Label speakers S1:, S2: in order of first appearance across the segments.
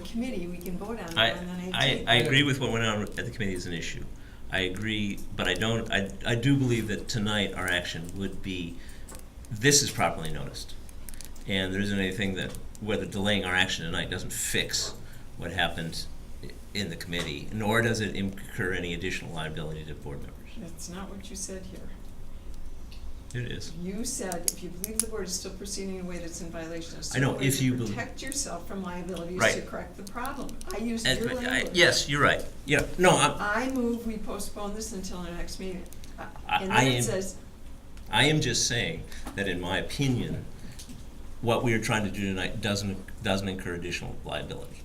S1: committee, we can vote on it
S2: I,
S1: on the
S2: I,
S1: nineteenth.
S2: I agree with what went on at the committee is an issue. I agree, but I don't, I, I do believe that tonight our action would be, this is properly noticed. And there isn't anything that, whether delaying our action tonight doesn't fix what happened i- in the committee, nor does it incur any additional liability to board members.
S1: That's not what you said here.
S2: It is.
S1: You said if you believe the board is still proceeding in a way that's in violation of.
S2: I
S1: state
S2: know,
S1: law,
S2: if you believe-
S1: Protect yourself from liability is
S2: Right.
S1: to correct the problem. I used
S2: And-
S1: your
S2: I-
S1: language.
S2: Yes, you're right. Yeah, no, I'm,
S1: I move we postpone this until our next meeting. Uh,
S2: I-
S1: And
S2: I
S1: then
S2: am-
S1: it says,
S2: I am just saying that in my opinion, what we are trying to do tonight doesn't, doesn't incur additional liability.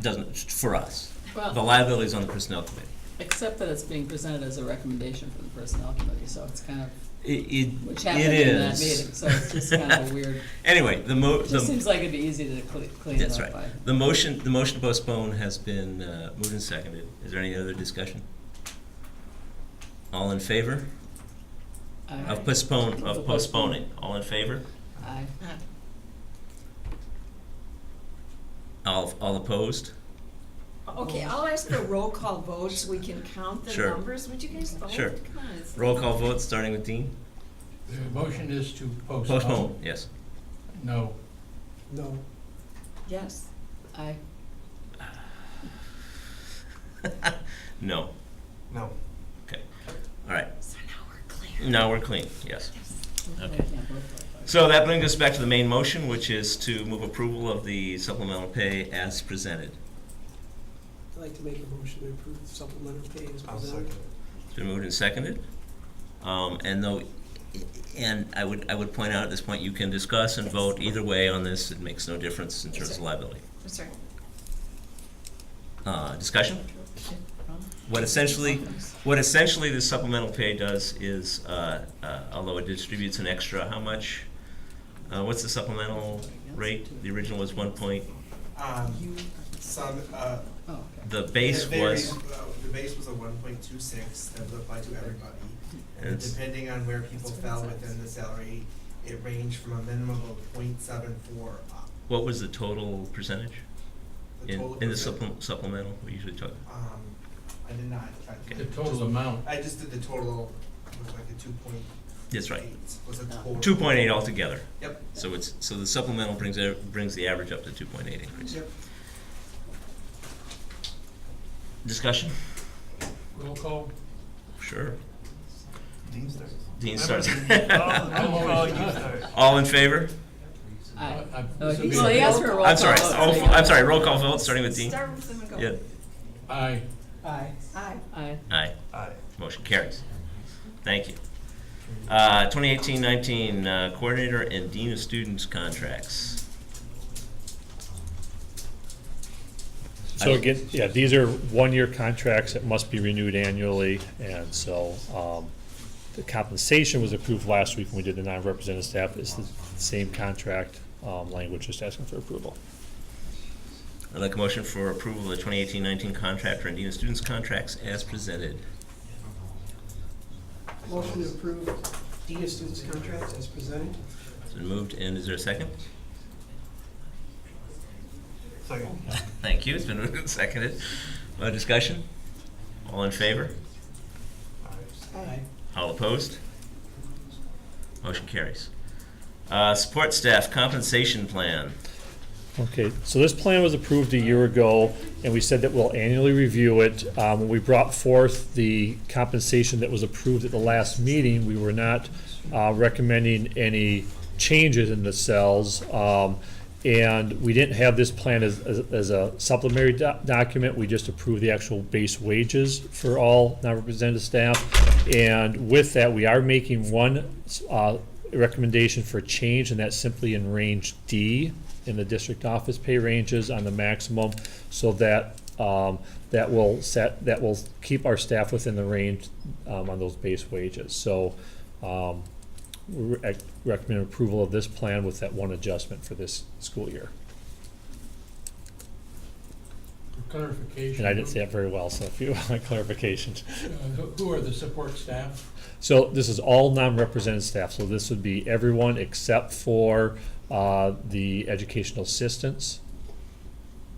S2: Doesn't, for us. The
S3: Well,
S2: liability is on the personnel committee.
S3: except that it's being presented as a recommendation from the personnel committee, so it's kind of,
S2: It,
S3: which
S2: it,
S3: happened
S2: it
S3: in that
S2: is.
S3: meeting, so it's just kind of a weird,
S2: Anyway, the mo,
S3: it just
S2: the,
S3: seems like it'd be easy to cle- clean it
S2: that's
S3: up
S2: right.
S3: by.
S2: The motion, the motion to postpone has been uh, moved and seconded. Is there any other discussion? All in favor
S3: I-
S2: of postpone, of postponing? All in favor?
S3: I,
S2: All, all opposed?
S1: okay, I'll ask for roll call votes, so we can count the
S2: Sure.
S1: numbers. Would you guys vote?
S2: Sure.
S1: Come on, it's-
S2: Roll call vote, starting with Dean?
S4: The motion is to postpone.
S2: Postpone, yes.
S4: No,
S5: No,
S1: Yes.
S3: I,
S2: No.
S5: no.
S2: All right,
S1: So now we're clear.
S2: now we're clean, yes.
S3: I
S2: Okay.
S3: can't vote for it.
S2: So that brings us back to the main motion, which is to move approval of the supplemental pay as presented.
S5: I'd like to make a motion to approve the supplemental pay as
S6: I'll
S5: presented.
S6: second it.
S2: It's been moved and seconded. Um, and though, and I would, I would point out at this point, you can discuss and vote either way on this. It makes no difference in terms of liability.
S1: I'm sorry.
S2: Uh, discussion? What essentially, what essentially the supplemental pay does is, uh, uh, although it distributes an extra, how much? Uh, what's the supplemental rate? The original was one point,
S4: Uh,
S6: Um,
S3: You,
S6: some, uh,
S3: oh, okay.
S2: the base was.
S6: it varies, uh, The base was a one point two six that would apply to everybody. And
S2: It's-
S6: depending on where people
S3: That's what it
S6: fell
S3: says.
S6: within the salary, it ranged from a minimum of 0.74 up.
S2: What was the total percentage in,
S6: total
S2: in the
S6: percent-
S2: supple- supplemental, we usually talk?
S6: Um, I did not
S4: the
S6: calculate.
S4: total amount,
S6: I just did the total, it was like a two point
S2: That's right,
S6: eight, was a
S3: No.
S6: total.
S2: two point eight altogether.
S6: Yep,
S2: So it's, so the supplemental brings, e- brings the average up to two point eight increase.
S6: yep.
S2: Discussion?
S4: roll call.
S2: Sure.
S5: Dean starts.
S2: Dean starts.
S4: I'm always-
S2: All in favor?
S3: I,
S4: I- I-
S3: oh,
S4: this would be-
S3: well, he asked for a roll call.
S2: I'm sorry,
S3: vote,
S2: all-
S3: so you-
S2: I'm sorry, roll call vote, starting with Dean.
S1: Start with them and go.
S2: Yeah,
S4: Aye,
S5: Aye.
S1: Aye.
S3: I,
S2: aye,
S5: Aye.
S2: motion carries. Thank you. Uh, twenty eighteen nineteen, uh, coordinator and dean of students contracts.
S7: So again, yeah, these are one-year contracts that must be renewed annually, and so, um, the compensation was approved last week when we did the non-represented staff, it's the same contract, um, language, just asking for approval.
S2: I'd like a motion for approval of the 2018-19 contract for Indiana students' contracts as presented.
S5: Motion to approve Dean of Students Contracts as presented.
S2: It's been moved, and is there a second?
S5: Second.
S2: Thank you, it's been moved and seconded. Uh, Discussion? All in favor?
S5: Aye.
S2: All opposed? Motion carries. Uh, Support staff compensation plan.
S7: Okay, so this plan was approved a year ago, and we said that we'll annually review it. Um, when we brought forth the compensation that was approved at the last meeting, we were not, uh, recommending any changes in the cells. Um, and we didn't have this plan as, as, as a supplementary doc- document, we just approved the actual base wages for all non-represented staff. And with that, we are making one, uh, recommendation for change, and that's simply in range D in the district office pay ranges on the maximum, so that, um, that will set, that will keep our staff within the range, um, on those base wages. So, um, we rec- recommend approval of this plan with that one adjustment for this school year.
S4: for clarification.
S7: And I didn't say that very well, so if you want clarifications.
S4: Uh, who- Who are the support staff?
S7: So this is all non-represented staff, so this would be everyone except for uh, the educational assistants